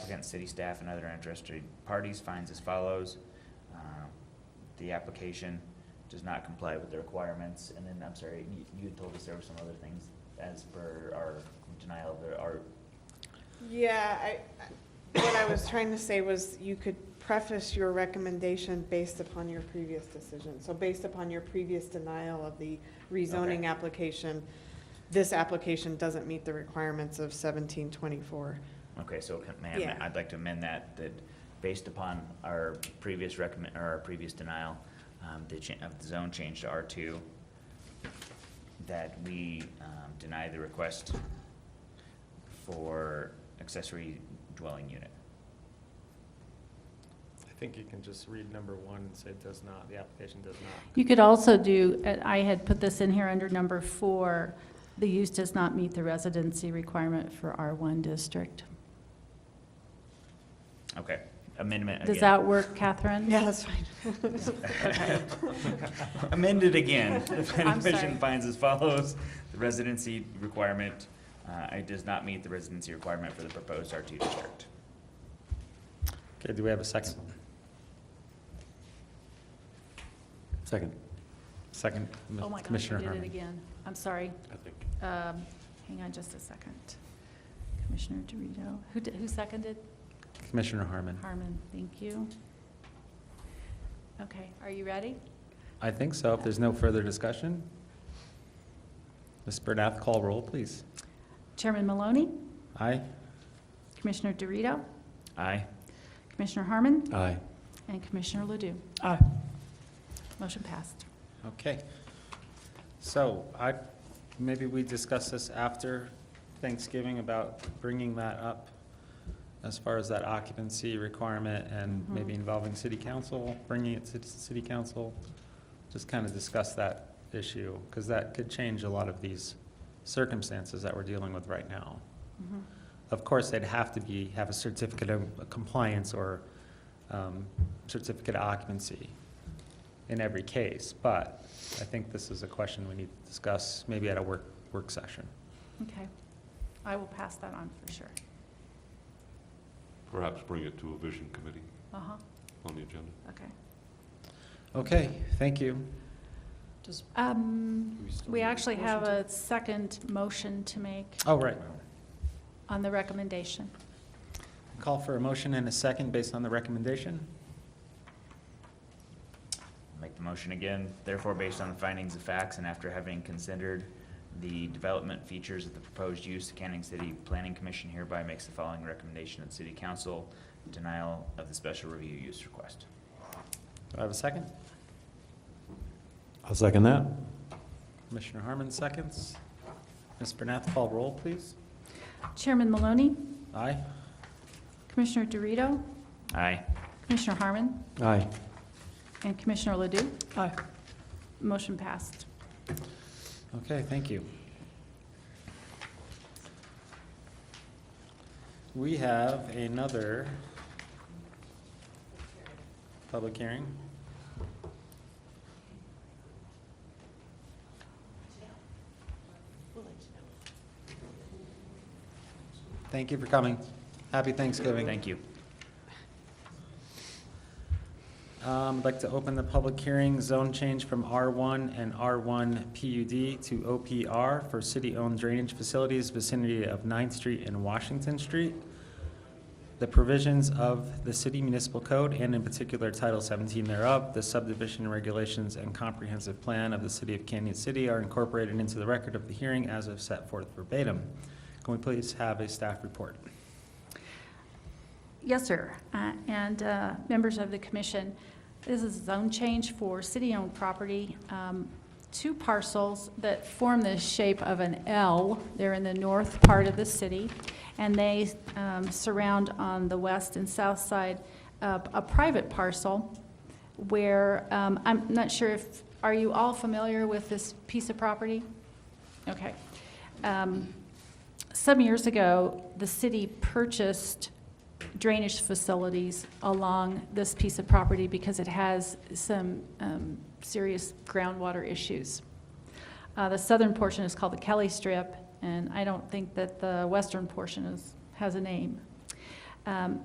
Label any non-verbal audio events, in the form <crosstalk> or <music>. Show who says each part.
Speaker 1: represent city staff and other interested parties finds as follows. Uh, The application does not comply with the requirements, and then, I'm sorry, you, you had told us there were some other things as per our denial of the, our,
Speaker 2: Yeah, I, I- what I was trying to say was you could preface your recommendation based upon your previous decision. So based upon your previous denial of the rezoning
Speaker 1: Okay.
Speaker 2: application, this application doesn't meet the requirements of seventeen twenty-four.
Speaker 1: okay, so can, ma'am,
Speaker 2: Yeah.
Speaker 1: I'd like to amend that, that based upon our previous recommend, or our previous denial, um, the cha, of the zone change to R two, that we, um, deny the request for accessory dwelling unit.
Speaker 3: I think you can just read number one and say it does not, the application does not.
Speaker 4: You could also do, uh, I had put this in here under number four, the use does not meet the residency requirement for R1 district.
Speaker 1: Okay, amendment
Speaker 4: Does
Speaker 1: again.
Speaker 4: that work, Catherine?
Speaker 2: Yeah, that's fine.
Speaker 1: <laughs> Amended
Speaker 4: <laughs>
Speaker 1: again. The planning
Speaker 4: I'm
Speaker 1: commission
Speaker 4: sorry.
Speaker 1: finds as follows, the residency requirement, uh, it does not meet the residency requirement for the proposed R two district.
Speaker 3: Okay, do we have a second?
Speaker 5: Second.
Speaker 3: Second,
Speaker 4: Oh, my gosh, I
Speaker 5: Commissioner
Speaker 4: did it
Speaker 5: Harmon.
Speaker 4: again. I'm sorry.
Speaker 5: I think.
Speaker 4: Um, Hang on just a second. Commissioner Dorito, who, di- who seconded?
Speaker 5: Commissioner Harmon.
Speaker 4: Harmon, thank you. Okay, are you ready?
Speaker 5: I think so. If there's no further discussion. Ms. Burdette, call roll, please.
Speaker 4: Chairman Maloney,
Speaker 5: Aye?
Speaker 4: Commissioner Dorito,
Speaker 1: Aye.
Speaker 4: Commissioner Harmon,
Speaker 5: Aye.
Speaker 4: and Commissioner Ledoux.
Speaker 5: Aye.
Speaker 4: Motion passed.
Speaker 5: Okay. So I, maybe we discuss this after Thanksgiving about bringing that up as far as that occupancy requirement and maybe
Speaker 4: Mhm.
Speaker 5: involving city council, bringing it to the city council. Just kind of discuss that issue, because that could change a lot of these circumstances that we're dealing with right now.
Speaker 4: Mhm.
Speaker 5: Of course, they'd have to be, have a certificate of compliance or um, certificate of occupancy in every case, but I think this is a question we need to discuss, maybe at a work, work session.
Speaker 4: Okay. I will pass that on for sure.
Speaker 6: Perhaps bring it to a vision committee
Speaker 4: Uh-huh,
Speaker 6: on the agenda.
Speaker 4: okay.
Speaker 5: Okay, thank you.
Speaker 4: Um,
Speaker 6: still
Speaker 4: we
Speaker 6: need a
Speaker 4: actually have a second motion to make
Speaker 5: Oh, right.
Speaker 4: on the recommendation.
Speaker 5: Call for a motion and a second based on the recommendation.
Speaker 1: Make the motion again. Therefore, based on the findings of facts and after having considered the development features of the proposed use, the Canning City Planning Commission hereby makes the following recommendation to the city council, denial of the special review use request.
Speaker 5: Do I have a second?
Speaker 3: I'll second that.
Speaker 5: Commissioner Harmon seconds. Ms. Bernath, call roll, please.
Speaker 4: Chairman Maloney,
Speaker 5: Aye?
Speaker 4: Commissioner Dorito,
Speaker 1: Aye.
Speaker 4: Commissioner Harmon,
Speaker 3: Aye.
Speaker 4: and Commissioner Ledoux. Aye. Motion passed.
Speaker 5: Okay, thank you. We have another public hearing. Thank you for coming. Happy Thanksgiving.
Speaker 1: Thank you.
Speaker 5: Um, I'd like to open the public hearing, zone change from R1 and R1 PUD to OPR for city-owned drainage facilities vicinity of 9th Street and Washington Street. The provisions of the city municipal code and in particular Title 17 thereof, the subdivision regulations and comprehensive plan of the city of Canyon City are incorporated into the record of the hearing as of set forth verbatim. Can we please have a staff report?
Speaker 4: Yes, sir. Uh, And uh, members of the commission, this is a zone change for city-owned property. Um, Two parcels that form the shape of an L. They're in the north part of the city, and they um, surround on the west and south side uh, a private parcel where, um, I'm not sure if, are you all familiar with this piece of property? Okay. Um, Some years ago, the city purchased drainage facilities along this piece of property because it has some um, serious groundwater issues. Uh, The southern portion is called the Kelly Strip, and I don't think that the western portion is, has a name. Um,